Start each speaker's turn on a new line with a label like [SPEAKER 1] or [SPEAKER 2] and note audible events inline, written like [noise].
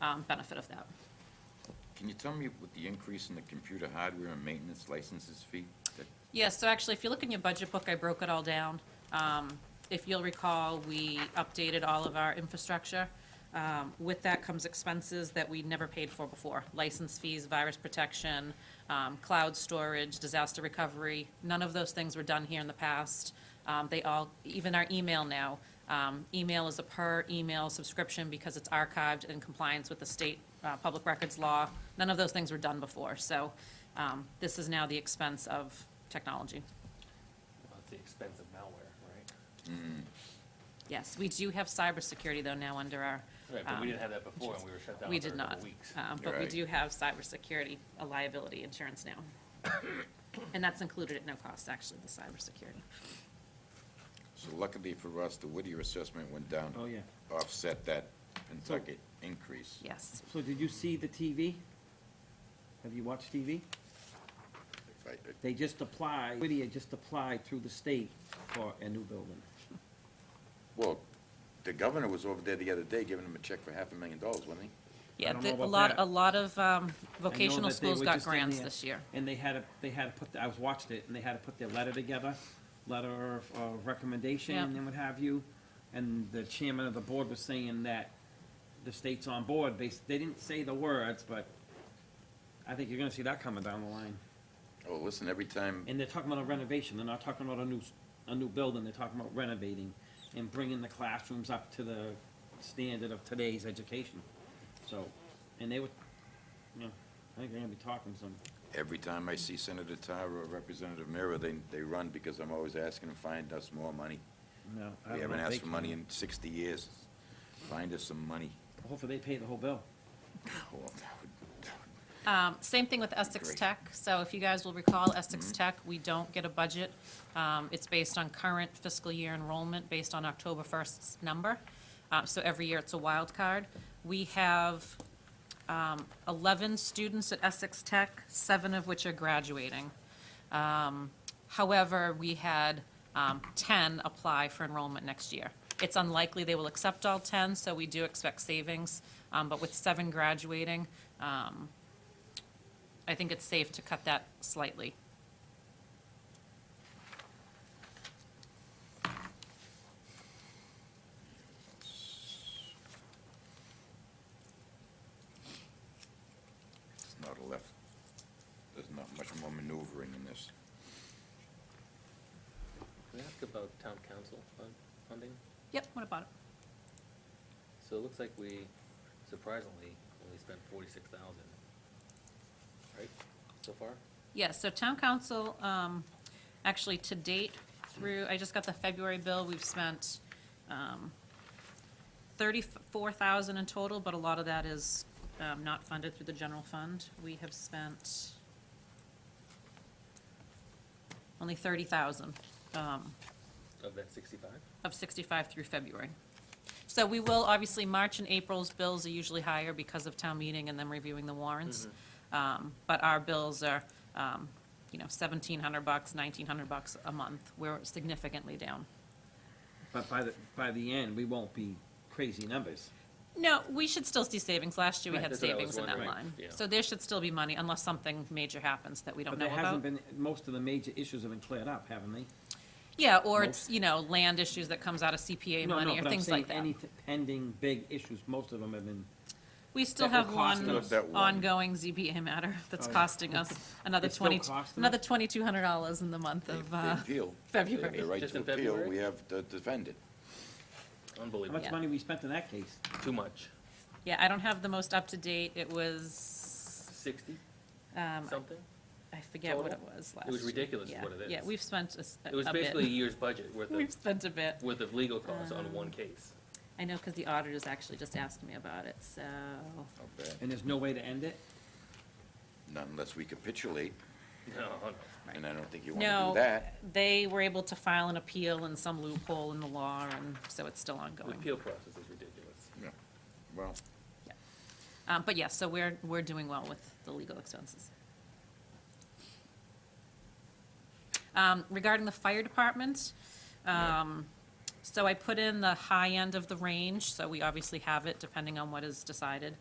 [SPEAKER 1] um, benefit of that.
[SPEAKER 2] Can you tell me what the increase in the computer hardware and maintenance licenses fee? that-
[SPEAKER 1] Yes, so actually, if you look in your budget book, I broke it all down. Um, If you'll recall, we updated all of our infrastructure. Um, With that comes expenses that we never paid for before, license fees, virus protection, um, cloud storage, disaster recovery. None of those things were done here in the past. Um, They all, even our email now, um, email is a per-email subscription because it's archived in compliance with the state uh, public records law. None of those things were done before, so um, this is now the expense of technology.
[SPEAKER 3] At the expense of malware, right?
[SPEAKER 1] Yes, we do have cybersecurity, though, now under our.
[SPEAKER 3] Right, but we
[SPEAKER 1] um,
[SPEAKER 3] didn't have that before, and we were shut down
[SPEAKER 1] We
[SPEAKER 3] for a
[SPEAKER 1] did
[SPEAKER 3] couple
[SPEAKER 1] not.
[SPEAKER 3] weeks.
[SPEAKER 1] Um, But we
[SPEAKER 2] Right.
[SPEAKER 1] do have cybersecurity, a liability insurance now. [coughs] And that's included at no cost, actually, the cybersecurity.
[SPEAKER 2] So luckily for us, the Whittier assessment went down.
[SPEAKER 4] Oh, yeah.
[SPEAKER 2] Offset that Pennsylkill increase.
[SPEAKER 1] Yes.
[SPEAKER 4] So did you see the TV? Have you watched TV?
[SPEAKER 2] I- I- uh,
[SPEAKER 4] They just applied, Whittier just applied through the state for a new building.
[SPEAKER 2] Well, the governor was over there the other day giving him a check for half a million dollars, wasn't he?
[SPEAKER 1] Yeah,
[SPEAKER 4] don't know
[SPEAKER 1] the- a
[SPEAKER 4] about
[SPEAKER 1] lot,
[SPEAKER 4] that.
[SPEAKER 1] a lot of um,
[SPEAKER 4] I know
[SPEAKER 1] vocational
[SPEAKER 4] that they
[SPEAKER 1] schools
[SPEAKER 4] were
[SPEAKER 1] got
[SPEAKER 4] just in
[SPEAKER 1] grants
[SPEAKER 4] there,
[SPEAKER 1] this year.
[SPEAKER 4] And they had to, they had to put, the- I was watching it, and they had to put their letter together, letter of, of recommendation
[SPEAKER 1] Yep.
[SPEAKER 4] and what have you. And the chairman of the board was saying that the state's on board. They, s- they didn't say the words, but I think you're gonna see that coming down the line.
[SPEAKER 2] Oh, listen, every time,
[SPEAKER 4] And they're talking about a renovation, they're not talking about a new, s- a new building, they're talking about renovating and bringing the classrooms up to the standard of today's education. So, and they would, you know, I think they're gonna be talking some,
[SPEAKER 2] every time I see Senator Tyra or Representative Mira, they, they run because I'm always asking them, find us more money.
[SPEAKER 4] you know. I
[SPEAKER 2] We
[SPEAKER 4] don't
[SPEAKER 2] haven't
[SPEAKER 4] know if
[SPEAKER 2] asked
[SPEAKER 4] they
[SPEAKER 2] for money
[SPEAKER 4] can-
[SPEAKER 2] in sixty years. Find us some money.
[SPEAKER 4] Hopefully they pay the whole bill.
[SPEAKER 2] Well, that would- that would
[SPEAKER 1] Um, Same thing with Essex
[SPEAKER 2] Great.
[SPEAKER 1] Tech. So if you guys will recall, Essex Tech, we don't get a budget. Um, It's based on current fiscal year enrollment, based on October 1st's number. Uh, So every year, it's a wild card. We have um, 11 students at Essex Tech, seven of which are graduating. Um, However, we had um, 10 apply for enrollment next year. It's unlikely they will accept all 10, so we do expect savings. Um, But with seven graduating, um, I think it's safe to cut that slightly.
[SPEAKER 2] There's not a left, there's not much more maneuvering in this.
[SPEAKER 3] Can I ask about town council fund, funding?
[SPEAKER 1] Yep, what about it?
[SPEAKER 3] So it looks like we surprisingly only spent forty-six thousand, right, so far?
[SPEAKER 1] Yes, so town council, um, actually to date through, I just got the February bill, we've spent, um, thirty-four thousand in total, but a lot of that is, um, not funded through the general fund. We have spent only thirty thousand, um,
[SPEAKER 3] Of that sixty-five?
[SPEAKER 1] of 65 through February. So we will, obviously, March and April's bills are usually higher because of town meeting and them reviewing the warrants.
[SPEAKER 3] Mm-hmm.
[SPEAKER 1] Um, But our bills are, um, you know, 1,700 bucks, 1,900 bucks a month. We're significantly down.
[SPEAKER 4] But by the, by the end, we won't be crazy numbers.
[SPEAKER 1] No, we should still see savings. Last year, we
[SPEAKER 3] Right,
[SPEAKER 1] had
[SPEAKER 3] that's what I was
[SPEAKER 1] savings in that
[SPEAKER 3] wondering.
[SPEAKER 1] line.
[SPEAKER 3] Yeah.
[SPEAKER 1] So there should still be money unless something major happens that we don't
[SPEAKER 4] But
[SPEAKER 1] know
[SPEAKER 4] there
[SPEAKER 1] about.
[SPEAKER 4] hasn't been, most of the major issues have been cleared up, haven't they?
[SPEAKER 1] Yeah, or it's, you know, land issues that comes out of CPA
[SPEAKER 4] No, no,
[SPEAKER 1] money or
[SPEAKER 4] but I'm
[SPEAKER 1] things
[SPEAKER 4] saying
[SPEAKER 1] like that.
[SPEAKER 4] Any t- pending big issues, most of them have been
[SPEAKER 1] We still
[SPEAKER 4] That
[SPEAKER 1] have
[SPEAKER 4] will cost
[SPEAKER 1] one
[SPEAKER 2] us- That one.
[SPEAKER 1] ongoing ZBA matter that's
[SPEAKER 4] Oh, yeah.
[SPEAKER 1] costing us another
[SPEAKER 4] It's still
[SPEAKER 1] twenty,
[SPEAKER 4] costing us?
[SPEAKER 1] another twenty-two hundred dollars in the month
[SPEAKER 2] They-
[SPEAKER 1] of,
[SPEAKER 2] they
[SPEAKER 1] uh,
[SPEAKER 2] appeal. They have
[SPEAKER 1] February.
[SPEAKER 2] The right
[SPEAKER 3] Just
[SPEAKER 2] to
[SPEAKER 3] in
[SPEAKER 2] appeal,
[SPEAKER 3] February?
[SPEAKER 2] we have to defend it.
[SPEAKER 4] How
[SPEAKER 3] Unbelievable,
[SPEAKER 4] much
[SPEAKER 1] Yeah.
[SPEAKER 4] money we spent in that case?
[SPEAKER 3] too much.
[SPEAKER 1] yeah, I don't have the most up-to-date. It was,
[SPEAKER 3] Sixty
[SPEAKER 1] um,
[SPEAKER 3] something?
[SPEAKER 1] I forget what it
[SPEAKER 3] Total?
[SPEAKER 1] was last
[SPEAKER 3] was
[SPEAKER 1] year.
[SPEAKER 3] ridiculous is
[SPEAKER 1] Yeah.
[SPEAKER 3] what it
[SPEAKER 1] Yeah,
[SPEAKER 3] is.
[SPEAKER 1] we've spent a s- a
[SPEAKER 3] It was
[SPEAKER 1] a
[SPEAKER 3] basically a
[SPEAKER 1] [laughs] bit.
[SPEAKER 3] year's budget worth
[SPEAKER 1] We've
[SPEAKER 3] of,
[SPEAKER 1] spent a bit.
[SPEAKER 3] worth of legal costs on one
[SPEAKER 1] Um,
[SPEAKER 3] case. [laughs]
[SPEAKER 1] I know, because the auditors actually just asked me about it, so,
[SPEAKER 2] Not bad.
[SPEAKER 4] And there's no way to end it?
[SPEAKER 2] Not unless we capitulate,
[SPEAKER 3] No, no.
[SPEAKER 2] and I don't think you want to do
[SPEAKER 1] no,
[SPEAKER 2] that.
[SPEAKER 1] they were able to file an appeal in some loophole in the law, and so it's still
[SPEAKER 3] The
[SPEAKER 1] ongoing.
[SPEAKER 3] appeal process is ridiculous.
[SPEAKER 2] Yeah. Well,
[SPEAKER 1] Um, but yes, so we're, we're doing well with the legal expenses. Um, regarding the fire department, um, so I put in the high end of the range, so we obviously have it depending on what is decided.